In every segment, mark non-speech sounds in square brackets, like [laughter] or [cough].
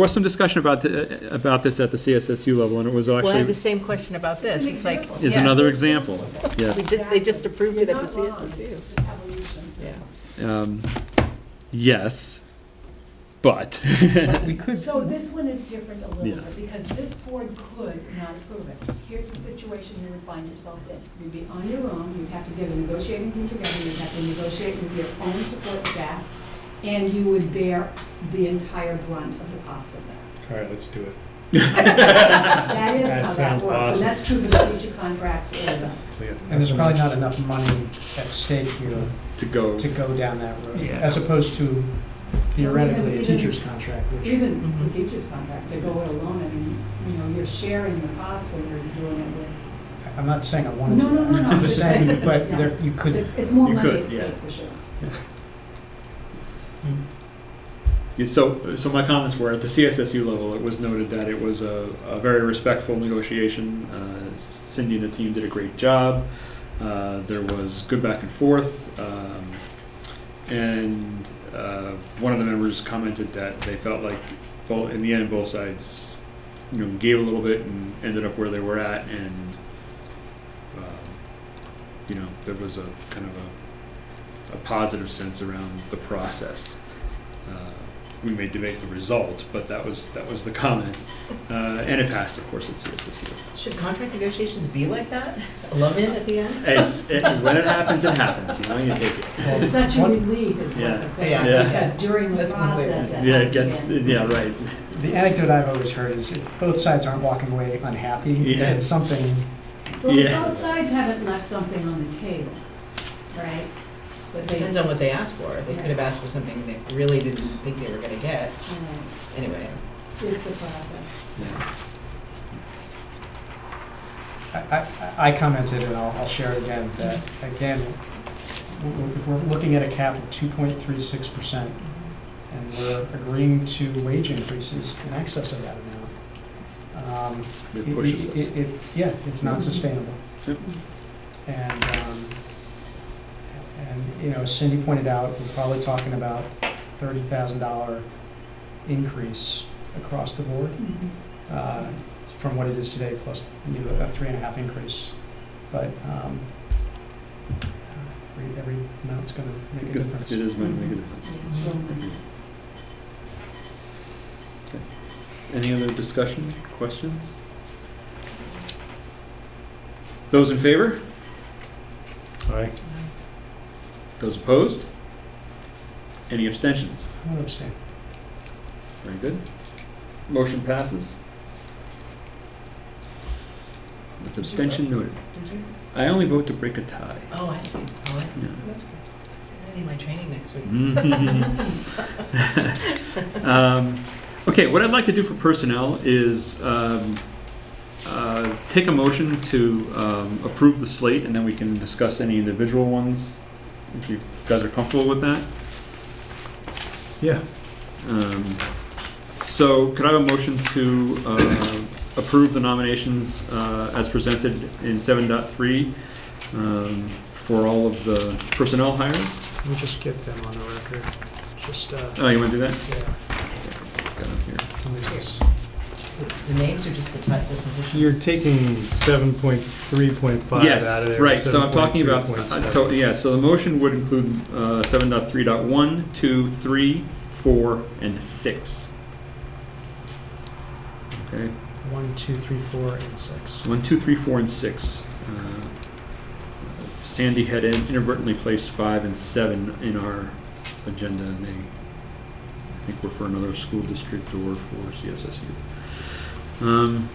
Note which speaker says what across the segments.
Speaker 1: was some discussion about, the- about this at the CSSU level, and it was
Speaker 2: Well, I had the
Speaker 1: actually,
Speaker 2: same question about this. It's like,
Speaker 1: is
Speaker 2: yeah,
Speaker 1: another example,
Speaker 2: we
Speaker 1: yes.
Speaker 2: just, they just approved it at the CSSU.
Speaker 3: It's evolution.
Speaker 2: Yeah.
Speaker 1: Um, Yes, but, [laughs]
Speaker 4: We could,
Speaker 3: So this one is different a
Speaker 1: Yeah.
Speaker 3: little bit, because this board could not approve it. Here's the situation you would find yourself in. You'd be on your own, you'd have to get a negotiating team together, you'd have to negotiate with your own support staff, and you would bear the entire brunt of the cost
Speaker 1: [laughs]
Speaker 3: of that.
Speaker 4: all right, let's do it.
Speaker 3: That is
Speaker 4: That
Speaker 3: how that
Speaker 4: sounds
Speaker 3: works,
Speaker 4: awesome.
Speaker 3: and that's true for the teacher contracts and the
Speaker 4: Clear.
Speaker 5: And there's probably not enough money at stake here
Speaker 1: to go,
Speaker 5: to go down that road,
Speaker 4: Yeah.
Speaker 5: as opposed to theoretically a teacher's contract, which,
Speaker 3: Even the teacher's contract, to go it alone, I mean, you know, you're sharing the cost when you're doing it with,
Speaker 5: I'm not saying I want to
Speaker 3: No,
Speaker 5: do
Speaker 3: no, no,
Speaker 5: that.
Speaker 3: no,
Speaker 5: I'm just saying, but
Speaker 3: yeah.
Speaker 5: there, you could,
Speaker 3: it's, it's more
Speaker 1: You
Speaker 3: money
Speaker 1: could,
Speaker 3: at
Speaker 1: yeah.
Speaker 3: stake for sure.
Speaker 1: Yeah, so, so my comments were, at the CSSU level, it was noted that it was a, a very respectful negotiation. Uh, Cindy and the team did a great job. Uh, there was good back and forth. Um, and uh, one of the members commented that they felt like, well, in the end, both sides, you know, gave a little bit and ended up where they were at. And, um, you know, there was a kind of a, a positive sense around the process. Uh, we may debate the result, but that was, that was the comment. Uh, and it passed, of course, at CSSU.
Speaker 2: Should contract negotiations be like that? A love-in at the end?
Speaker 1: It's, it, when it happens, it happens, you know, you take it.
Speaker 5: well,
Speaker 3: It's such a
Speaker 5: one-
Speaker 3: relief is what the thing,
Speaker 2: Yeah.
Speaker 1: Yeah.
Speaker 3: because during the
Speaker 4: That's completely-
Speaker 3: process.
Speaker 1: Yeah, it gets,
Speaker 3: happens.
Speaker 1: yeah, right.
Speaker 5: the anecdote I've always heard is if both sides aren't walking away unhappy,
Speaker 1: Yeah.
Speaker 5: it's something,
Speaker 3: Well,
Speaker 1: Yeah.
Speaker 3: both sides haven't left something on the table, right? But they,
Speaker 2: Depends on what they asked for. They could have asked for something they really didn't think they were gonna get.
Speaker 3: you know,
Speaker 2: Anyway,
Speaker 3: it's a process.
Speaker 5: I, I- I commented, and I'll, I'll share it again, that, again, w- w- if we're looking at a cap of two point three six percent, and we're agreeing to wage increases in excess of that amount. um,
Speaker 1: It pushes us.
Speaker 5: it- it- Yeah, it's not sustainable.
Speaker 1: Yep.
Speaker 5: And, um, and, you know, Cindy pointed out, we're probably talking about thirty thousand dollar increase across the board uh, from what it is today, plus, you know, a three and a half increase. But um, uh, every, every amount's gonna make a
Speaker 1: Because
Speaker 5: difference.
Speaker 1: It is my make a difference.
Speaker 3: It's real-
Speaker 1: Any other discussion, questions? Those in favor?
Speaker 4: All right,
Speaker 1: Those opposed? Any abstentions?
Speaker 5: I would abstain.
Speaker 1: Very good. Motion passes. With abstention noted.
Speaker 2: did you?
Speaker 1: I only vote to break a tie.
Speaker 2: Oh, I see. All right. That's good. So I need my training next week.
Speaker 1: Um, Okay, what I'd like to do for personnel is um, uh, take a motion to um, approve the slate, and then we can discuss any individual ones, if you guys are comfortable with that.
Speaker 4: Yeah.
Speaker 1: Um, So could I have a motion to uh, approve the nominations uh, as presented in 7.3 um, for all of the personnel hires?
Speaker 5: Let me just get them on the record, just, uh,
Speaker 1: Oh, you want to do that?
Speaker 5: yeah.
Speaker 1: Got it here.
Speaker 5: let me just-
Speaker 2: So The names are just the type, the positions?
Speaker 4: You're taking seven point three point five
Speaker 1: Yes,
Speaker 4: out of there.
Speaker 1: right, so I'm talking about, uh,
Speaker 4: 7.3.7.
Speaker 1: so, yeah, so the motion would include, uh, seven dot three dot one, two, three, four, and six. Okay,
Speaker 5: One, two, three, four, and six.
Speaker 1: one, two, three, four, and six. Uh, Sandy had in- inadvertently placed five and seven in our agenda, and they, I think were for another school district or for CSSU. Um,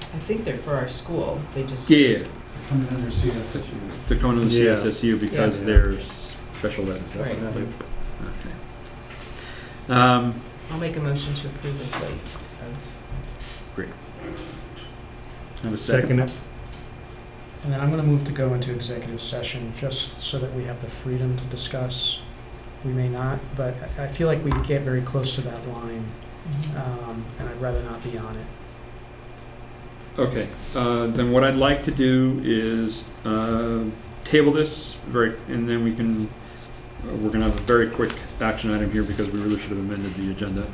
Speaker 2: I think they're for our school. They just.
Speaker 1: yeah,
Speaker 6: Coming under CSSU.
Speaker 1: they're coming to the
Speaker 4: Yeah.
Speaker 1: CSSU because
Speaker 4: Yeah.
Speaker 1: they're special ed, is that what
Speaker 2: Right.
Speaker 1: that is? Okay. Um,
Speaker 2: I'll make a motion to approve this slate.
Speaker 1: have a second?
Speaker 4: Second it,
Speaker 5: And then I'm gonna move to go into executive session, just so that we have the freedom to discuss. We may not, but I I feel like we get very close to that line,
Speaker 2: Mm-hmm.
Speaker 5: um, and I'd rather not be on it.
Speaker 1: Okay, uh, then what I'd like to do is, uh, table this very, and then we can, uh, we're gonna have a very quick action item here because we really should have amended the agenda.